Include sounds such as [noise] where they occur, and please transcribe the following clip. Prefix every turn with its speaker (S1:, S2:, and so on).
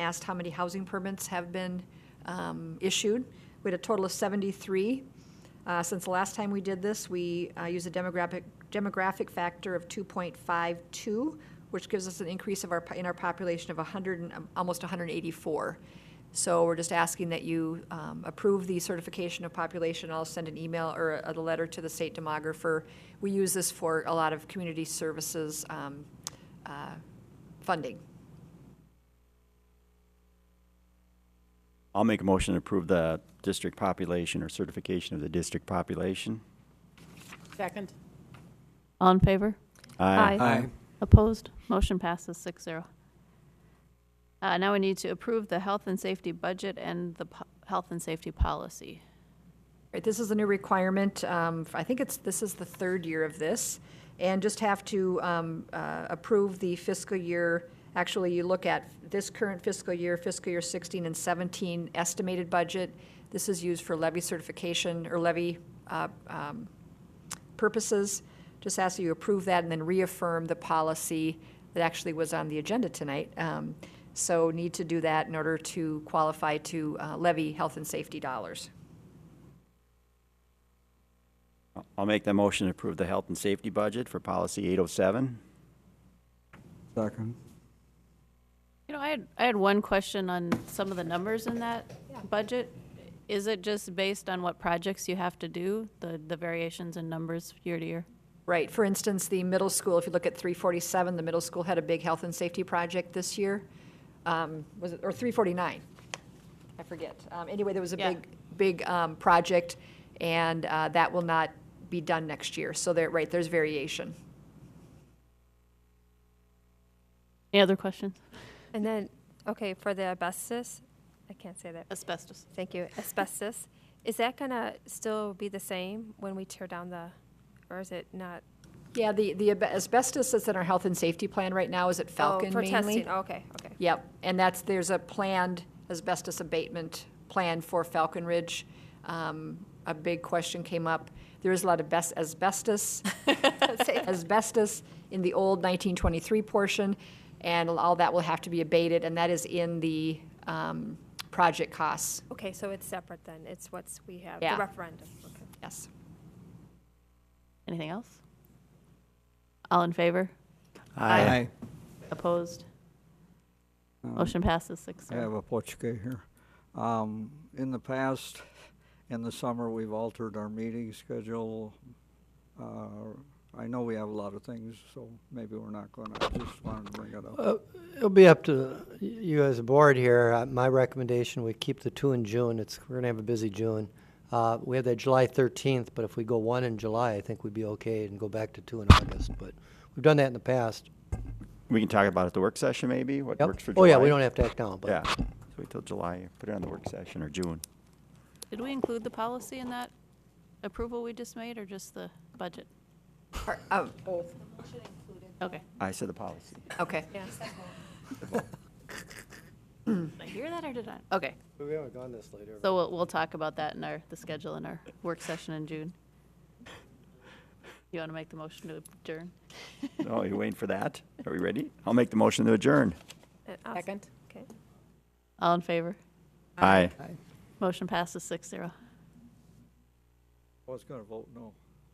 S1: asked how many housing permits have been um, issued. We had a total of 73. Uh, Since the last time we did this, we uh, use a demographic, demographic factor of 2.52, which gives us an increase of our, in our population of 100, and- um, almost 184. So we're just asking that you um, approve the certification of population. I'll send an email or a, a letter to the state demographer. We use this for a lot of community services um, uh, funding.
S2: I'll make a motion to approve the district population or certification of the district population.
S3: Second.
S4: All in favor? Aye.
S5: Aye.
S4: Opposed? Motion passes six zero. Uh, now we need to approve the health and safety budget and the po- health and safety policy.
S1: Right, this is a new requirement. um, I think it's, this is the third year of this. And just have to um, uh, approve the fiscal year, actually, you look at this current fiscal year, fiscal year 16 and 17 estimated budget. This is used for levy certification or levy uh, um, purposes. Just ask that you approve that and then reaffirm the policy that actually was on the agenda tonight. Um, So need to do that in order to qualify to uh, levy health and safety dollars.
S2: I'll make that motion to approve the health and safety budget for policy 807.
S5: Second.
S4: You know, I had, I had one question on some of the numbers in that budget. Is it just based on what projects you have to do, the, the variations in numbers year to year?
S1: Right, for instance, the middle school, if you look at 347, the middle school had a big health and safety project this year. Um, Was it, or 349? I forget. Um, Anyway, there was a
S4: Yeah.
S1: big, big um, project, and uh, that will not be done next year. So there, right, there's variation.
S4: Any other questions?
S6: And then, okay, for the asbestos, I can't say that.
S4: Asbestos.
S6: Thank you. Asbestos, is that gonna still be the same when we tear down the, or is it not?
S1: Yeah, the, the ab- asbestos that's in our health and safety plan right now is at Falcon
S6: Oh, For
S1: mainly.
S6: testing, okay, okay.
S1: Yep, and that's, there's a planned asbestos abatement plan for Falcon Ridge. Um, A big question came up. There is a lot of bes- asbestos, [laughs] asbestos in the old 1923 portion, and all that will have to be abated, and that is in the um, project costs,
S6: Okay, so it's separate then. It's what's, we have, the
S1: Yeah.
S6: referendum. Okay.
S1: yes.
S4: Anything else? All in favor?
S5: Aye.
S4: Opposed? Motion passes six
S5: I
S4: zero.
S5: have a Pochke here. Um, in the past, in the summer, we've altered our meeting schedule. Uh, I know we have a lot of things, so maybe we're not gonna, I just wanted to bring it up.
S7: It'll be up to you as a board here. Uh, My recommendation, we keep the two in June. It's, we're gonna have a busy June. Uh, we have that July thirteenth, but if we go one in July, I think we'd be okay and go back to two in August, but we've done that in the past.
S2: We can talk about it at the work session, maybe, what
S7: Yep.
S2: works for July.
S7: Oh, yeah, we don't have to act now, but.
S2: Yeah, so wait till July, put it on the work session or June.
S4: Did we include the policy in that approval we just made, or just the budget?
S1: Par- oh,
S4: Okay.
S2: I said the
S7: [laughs]
S2: policy.
S1: Okay,
S4: Did I hear that or did I? Okay,
S7: We haven't gone this later.
S4: so we'll, we'll talk about that in our, the schedule in our work session in June. You want to make the motion to adjourn?
S2: Oh, you waiting for that? Are we ready? I'll make the motion to adjourn.
S6: And I'll-
S3: Second.
S6: Okay.
S4: All in favor?
S2: Aye.
S4: Motion passes six zero.
S5: I was gonna vote no.